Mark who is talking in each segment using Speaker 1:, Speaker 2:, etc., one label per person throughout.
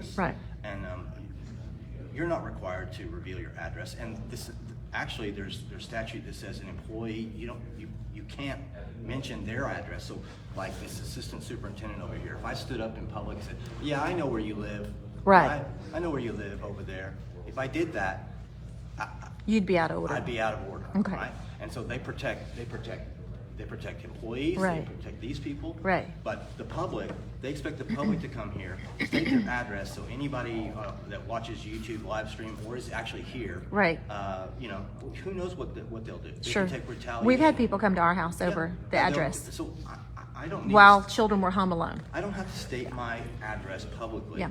Speaker 1: address.
Speaker 2: Right.
Speaker 1: And um, you're not required to reveal your address. And this, actually, there's there's statute that says an employee you don't you you can't mention their address. So like this assistant superintendent over here, if I stood up in public and said, "Yeah, I know where you live,"
Speaker 2: Right.
Speaker 1: I, I know where you live over there. If I did that,
Speaker 2: You'd be out of order.
Speaker 1: I'd be out of order.
Speaker 2: Okay.
Speaker 1: Right? And so they protect, they protect, they protect employees,
Speaker 2: Right.
Speaker 1: they protect these people.
Speaker 2: Right.
Speaker 1: But the public, they expect the public to come here, state their address, so anybody uh, that watches YouTube live stream or is actually here.
Speaker 2: Right.
Speaker 1: Uh, you know, who knows what, the, what they'll do. They
Speaker 2: Sure.
Speaker 1: can take retaliation.
Speaker 2: We've had people come to our house
Speaker 1: Yeah.
Speaker 2: over
Speaker 1: And
Speaker 2: the
Speaker 1: they'll-
Speaker 2: address
Speaker 1: So I, I I don't need. to
Speaker 2: while
Speaker 1: s-
Speaker 2: children were home alone.
Speaker 1: I don't have to state my address publicly.
Speaker 2: Yeah.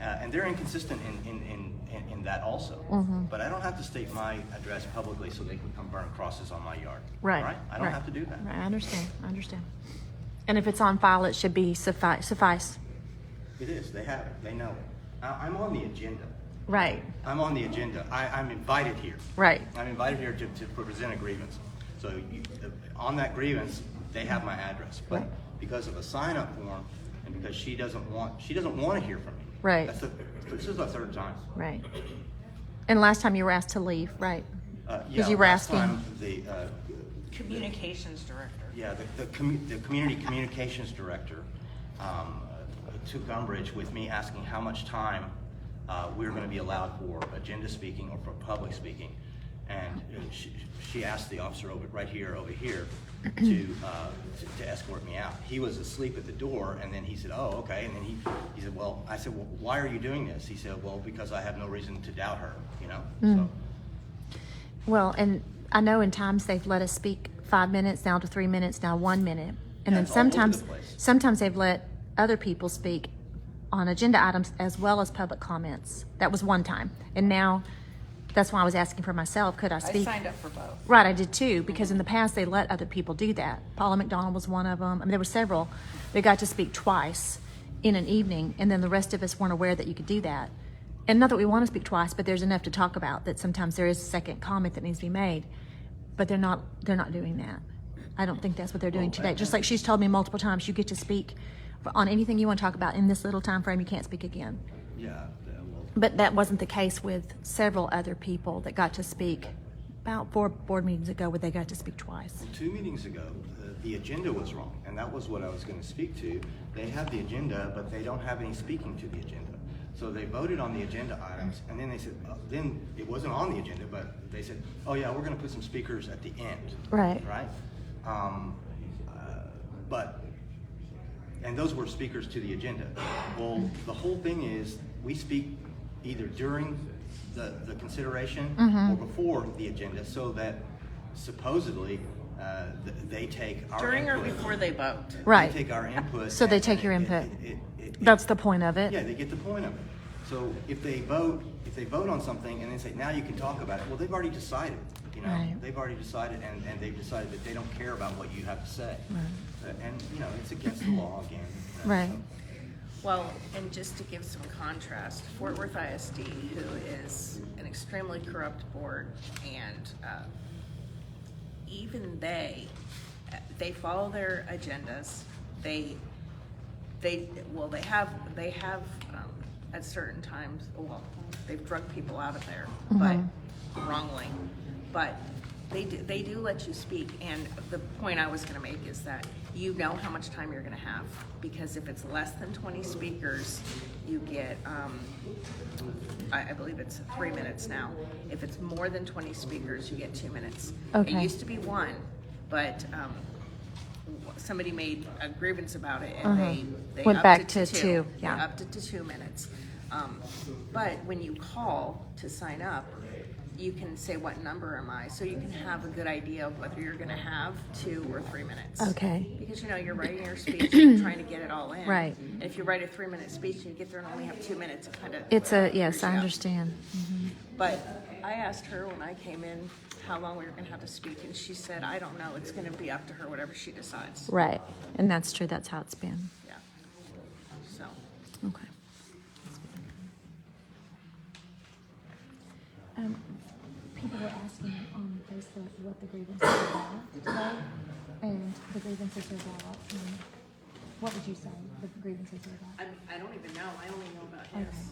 Speaker 1: Uh, and they're inconsistent in, in, in, in, in that also.
Speaker 2: Mm-hmm.
Speaker 1: But I don't have to state my address publicly so they can come burn crosses on my yard.
Speaker 2: Right.
Speaker 1: Right? I don't have to do that.
Speaker 2: Right. I understand. I understand. And if it's on file, it should be suffice. suffice.
Speaker 1: It is. They have it. They know it. I, I'm on the agenda.
Speaker 2: Right.
Speaker 1: I'm on the agenda. I, I'm invited here.
Speaker 2: Right.
Speaker 1: I'm invited here to, to present a grievance. So you, uh, on that grievance, they have my address. But
Speaker 2: Right.
Speaker 1: because of a sign-up form, and because she doesn't want, she doesn't want to hear from me.
Speaker 2: Right.
Speaker 1: That's the, this is the third time.
Speaker 2: Right. And last time you were asked to leave, right?
Speaker 1: Uh,
Speaker 2: Because
Speaker 1: yeah,
Speaker 2: you were
Speaker 1: last
Speaker 2: asking-
Speaker 1: time The, uh,
Speaker 3: Communications director.
Speaker 1: yeah, the, the commu- the community communications director, um, uh, took umbrage with me asking how much time, uh, we were gonna be allowed for agenda speaking or for public speaking. And uh, she, she asked the officer over, right here, over here, to, uh, to- to escort me out. He was asleep at the door, and then he said, oh, okay, and then he, he said, well, I said, well, why are you doing this? He said, well, because I have no reason to doubt her, you know,
Speaker 2: Hmm.
Speaker 1: so.
Speaker 2: Well, and I know in times they've let us speak five minutes down to three minutes, now one minute.
Speaker 1: Yeah,
Speaker 2: And then
Speaker 1: it's all over the
Speaker 2: sometimes,
Speaker 1: place.
Speaker 2: sometimes they've let other people speak on agenda items as well as public comments. That was one time. And now, that's why I was asking for myself, could I
Speaker 3: I
Speaker 2: speak?
Speaker 3: signed up for both.
Speaker 2: Right, I did too, because in the past they let other people do that. Paula McDonald was one of them. I mean, there were several. They got to speak twice in an evening, and then the rest of us weren't aware that you could do that. And not that we want to speak twice, but there's enough to talk about that sometimes there is a second comment that needs to be made. But they're not they're not doing that. I don't think that's what they're doing today. Just like she's told me multiple times, you get to speak on anything you want to talk about in this little time frame. You can't speak again.
Speaker 1: Yeah, the- well,
Speaker 2: But that wasn't the case with several other people that got to speak about four board meetings ago where they got to speak twice.
Speaker 1: two meetings ago, the- the agenda was wrong, and that was what I was gonna speak to. They have the agenda, but they don't have any speaking to the agenda. So they voted on the agenda items, and then they said, uh, then it wasn't on the agenda, but they said, oh yeah, we're gonna put some speakers at the end.
Speaker 2: Right.
Speaker 1: Right? Um, uh, But, and those were speakers to the agenda. Well, the whole thing is, we speak either during the, the consideration
Speaker 2: Mm-hmm.
Speaker 1: or before the agenda, so that supposedly, uh, th- they take our
Speaker 3: During or
Speaker 1: input.
Speaker 3: before they vote?
Speaker 2: Right.
Speaker 1: They take our input.
Speaker 2: So they
Speaker 1: and-
Speaker 2: take your
Speaker 1: and it-
Speaker 2: input.
Speaker 1: it- it- it-
Speaker 2: That's the point of
Speaker 1: Yeah,
Speaker 2: it.
Speaker 1: they get the point of it. So if they vote, if they vote on something and then say, now you can talk about it, well, they've already decided, you know?
Speaker 2: Right.
Speaker 1: They've already decided and, and they've decided that they don't care about what you have to say. Uh, And, you know, it's against the law again. you know,
Speaker 2: Right.
Speaker 1: so.
Speaker 3: Well, and just to give some contrast, Fort Worth ISD, who is an extremely corrupt board, and uh, even they, they follow their agendas. They, they, well, they have, they have um, at certain times, well, they've drugged people out of there, but wrongly. But they do, they do let you speak. And the point I was going to make is that you know how much time you're going to have because if it's less than 20 speakers, you get um, I, I believe it's three minutes now. If it's more than 20 speakers, you get two minutes.
Speaker 2: Okay.
Speaker 3: It used to be one, but um, w- somebody made a grievance about it and they, they
Speaker 2: Uh-huh. Went
Speaker 3: upped
Speaker 2: back
Speaker 3: it
Speaker 2: to two,
Speaker 3: They
Speaker 2: yeah.
Speaker 3: upped it to two minutes. Um, but when you call to sign up, you can say what number am I, so you can have a good idea of whether you're going to have two or three minutes.
Speaker 2: Okay.
Speaker 3: Because you know you're writing your speech, you're trying to get it all in.
Speaker 2: Right.
Speaker 3: And if you write a three-minute speech and you get there and only have two minutes, it kind of
Speaker 2: It's a, yes, I understand.
Speaker 3: but I asked her when I came in how long we were gonna have to speak, and she said, I don't know, it's gonna be up to her, whatever she decides.
Speaker 2: Right. And that's true. That's how it's been.
Speaker 3: Yeah. So,
Speaker 2: Okay. Um, people were asking on Facebook what the grievances are about today, and the grievances are about, um, what would you say the grievances are about?
Speaker 3: I, I don't even know, I only know about his.